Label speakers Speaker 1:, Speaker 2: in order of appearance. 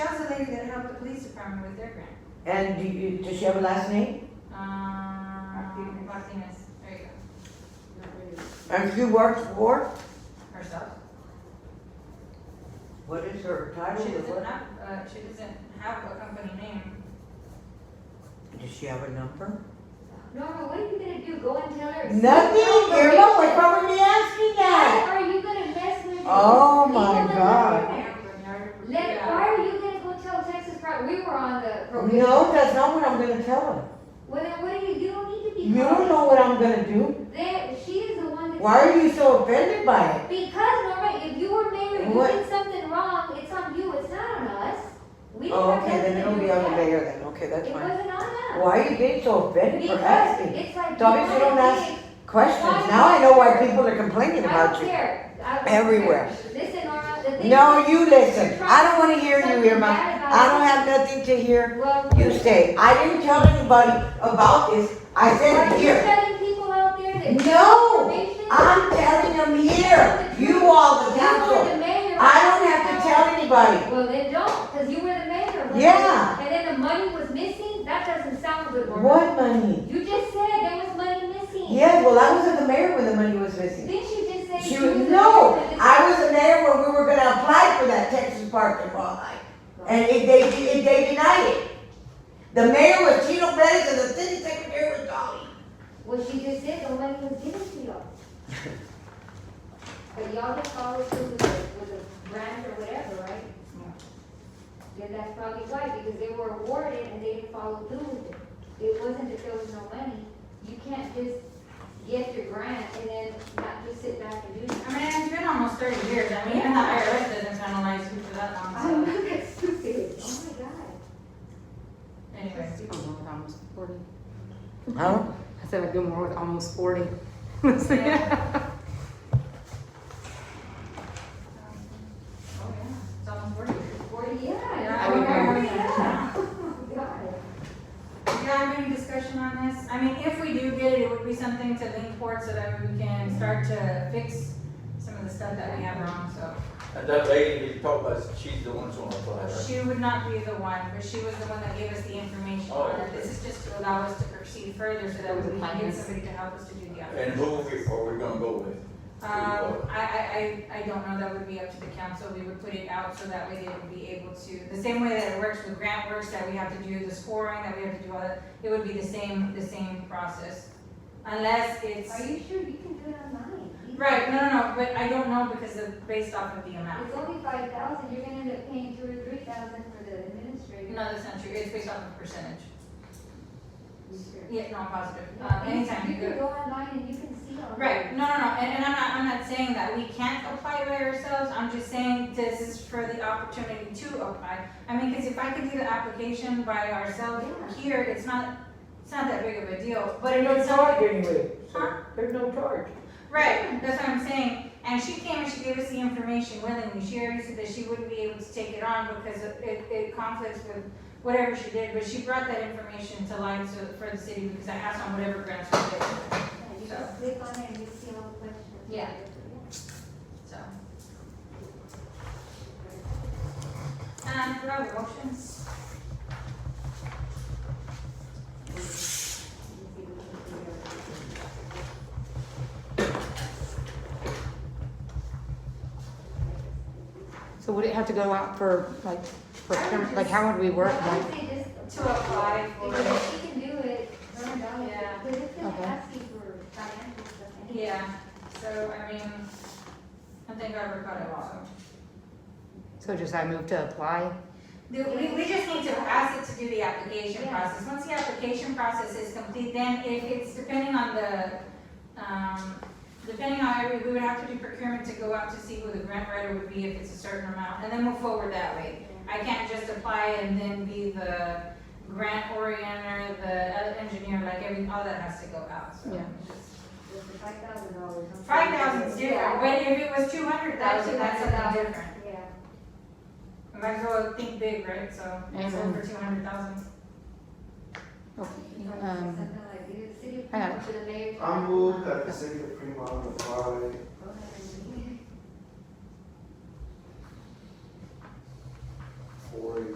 Speaker 1: police department with their grant.
Speaker 2: And do you, does she have a last name?
Speaker 1: Um,
Speaker 3: Martinez.
Speaker 1: Martinez, there you go,
Speaker 2: And she works for?
Speaker 1: herself.
Speaker 2: What is her title?
Speaker 1: She
Speaker 2: or
Speaker 1: doesn't
Speaker 2: what?
Speaker 1: have, uh, she doesn't have a company name.
Speaker 2: Does she have a number?
Speaker 3: Norma, what are you gonna do? Go and tell her? it's-
Speaker 2: Nothing, Irma, we're probably asking
Speaker 3: Why
Speaker 2: that.
Speaker 3: are you gonna mess with?
Speaker 2: Oh
Speaker 3: these
Speaker 2: my
Speaker 3: people that
Speaker 2: God.
Speaker 3: are there? Let, why are you gonna go tell Texas Pro, we were on the program.
Speaker 2: No, that's not what I'm gonna tell her.
Speaker 3: Well, then what do you, you don't need to be.
Speaker 2: You don't know what I'm gonna do.
Speaker 3: There, she is the one that.
Speaker 2: Why are you so offended by it?
Speaker 3: Because Norma, if you were mayor, you
Speaker 2: What?
Speaker 3: did something wrong, it's on you, it's not on us. We didn't
Speaker 2: Oh,
Speaker 3: have
Speaker 2: okay, then
Speaker 3: nothing to
Speaker 2: it'll
Speaker 3: do
Speaker 2: be
Speaker 3: with
Speaker 2: on the
Speaker 3: that.
Speaker 2: mayor then, okay, that's
Speaker 3: It
Speaker 2: fine.
Speaker 3: wasn't on us.
Speaker 2: Why are you being so offended for
Speaker 3: Because
Speaker 2: asking
Speaker 3: it's like.
Speaker 2: Topics you don't
Speaker 3: wanna
Speaker 2: ask
Speaker 3: be-
Speaker 2: questions? Now I know why people are complaining
Speaker 3: I don't
Speaker 2: about you.
Speaker 3: care. I don't
Speaker 2: Everywhere.
Speaker 3: care. Listen, Norma, the thing.
Speaker 2: No,
Speaker 3: is-
Speaker 2: you listen, I don't wanna hear you,
Speaker 3: Something
Speaker 2: Irma.
Speaker 3: bad about
Speaker 2: I don't
Speaker 3: it.
Speaker 2: have nothing to hear.
Speaker 3: Well,
Speaker 2: You say, I didn't tell anybody about this, I said
Speaker 3: Are
Speaker 2: it
Speaker 3: you
Speaker 2: here.
Speaker 3: telling people out there that?
Speaker 2: No,
Speaker 3: information?
Speaker 2: I'm telling them here, you all the
Speaker 3: You were
Speaker 2: council.
Speaker 3: the mayor.
Speaker 2: I don't have to tell anybody.
Speaker 3: Well, then don't, because you were the mayor. right?
Speaker 2: Yeah.
Speaker 3: And then the money was missing, that doesn't sound good, Norma.
Speaker 2: What money?
Speaker 3: You just said there was money missing.
Speaker 2: Yeah, well, I was at the mayor when the money was missing.
Speaker 3: Didn't you just say?
Speaker 2: She
Speaker 3: you
Speaker 2: was,
Speaker 3: were the
Speaker 2: no,
Speaker 3: mayor, but
Speaker 2: I was in there when we were gonna apply for that Texas Park and Wildlife. And it, they, it, they denied it. The mayor was Chino Perez and the city secretary was Dolly.
Speaker 3: it's- Well, she just said the money was given to y'all. But y'all just followed through with a, with a grant or whatever, right? Then that's probably why, because they were awarded and they didn't follow through with it. It wasn't that there was no money. You can't just get your grant and then not just sit back and do it.
Speaker 1: I mean, it's been almost thirty years, I mean, even the IRS doesn't penalize you for that
Speaker 3: I
Speaker 1: long, so,
Speaker 3: know, that's stupid. Oh my God.
Speaker 1: anyway.
Speaker 4: I don't know, it's almost forty.
Speaker 2: Huh?
Speaker 4: I said a good morning with almost forty.
Speaker 1: Yeah. Oh, yeah, it's almost forty years. Oh,
Speaker 3: Forty, yeah.
Speaker 1: Yeah,
Speaker 4: I would
Speaker 3: yeah,
Speaker 4: agree.
Speaker 3: yeah. Oh, God.
Speaker 1: Do you have any discussion on this? I mean, if we do get it, it would be something to lean towards so that we can start to fix some of the stuff that we have wrong, so.
Speaker 5: And that lady that you talked about, she's the one that's gonna apply, right?
Speaker 1: She would not be the one, but she was the one that gave us the information on it. This is just to allow us to proceed further so that we can get somebody to help us to do the audit.
Speaker 5: And who are we, are we gonna go with?
Speaker 1: Um, I, I, I, I don't know, that would be up to the council, we would put it out so that way they would be able to, the same way that it works with grant works, that we have to do the scoring, that we have to do all that, it would be the same, the same process. Unless it's,
Speaker 3: Are you sure you can do it online? You-
Speaker 1: right, no, no, no, but I don't know because of, based off of the amount.
Speaker 3: It's only five thousand, you're gonna end up paying two or three thousand for the administrator.
Speaker 1: No, that's not true, it's based off of percentage.
Speaker 3: You sure?
Speaker 1: Yeah, no, I'm positive,
Speaker 3: No,
Speaker 1: uh,
Speaker 3: you-
Speaker 1: anytime
Speaker 3: You
Speaker 1: you go.
Speaker 3: can go online and you can see all.
Speaker 1: Right, no, no, no, and, and I'm not, I'm not saying that we can't apply by ourselves, I'm just saying this is for the opportunity to apply. I mean, cause if I could do the application by ourselves
Speaker 3: Yeah.
Speaker 1: here, it's not, it's not that big of a deal, but if it's something.
Speaker 2: anyway,
Speaker 1: Huh?
Speaker 2: there's no charge.
Speaker 1: Right, that's what I'm saying, and she came and she gave us the information willingly, she already said that she wouldn't be able to take it on because it, it- it conflicts with whatever she did, but she brought that information to light so, for the city, because I asked on whatever grants we did,
Speaker 3: Yeah, You
Speaker 1: So.
Speaker 3: just click on it and you see all the questions.
Speaker 1: Yeah. so. And Um, do I have a motion?
Speaker 4: So would it have to go out for like, for, like how would we work?
Speaker 3: I
Speaker 4: Like,
Speaker 3: would say just.
Speaker 1: To apply for
Speaker 3: Because if she can do it, run it down,
Speaker 1: Yeah.
Speaker 3: because it's gonna
Speaker 4: Okay.
Speaker 3: ask you for financial stuff. I think.
Speaker 1: Yeah, so I mean, I think I recall it also.
Speaker 4: So just I move to apply?
Speaker 1: The- We, we just need to ask it to do the application process. Once the application process is complete, then if it's depending on the, um, depending on every, we would have to do procurement to go out to see who the grant writer would be if it's a certain amount, and then move forward that way. I can't just apply and then be the grant orienter, the other engineer, like every, all that has to go out, so.
Speaker 4: Yeah.
Speaker 3: With the five thousand dollars.
Speaker 1: Five thousand's different, but if it was two hundred thousand, that's something different.
Speaker 3: Yeah.
Speaker 1: Might as well think big, right? So it's
Speaker 4: Amen.
Speaker 1: over two hundred thousand.
Speaker 4: Okay,
Speaker 3: Something
Speaker 4: um,
Speaker 3: like, either the city
Speaker 4: I got
Speaker 3: to the mayor.
Speaker 6: I move that the city of Fremont apply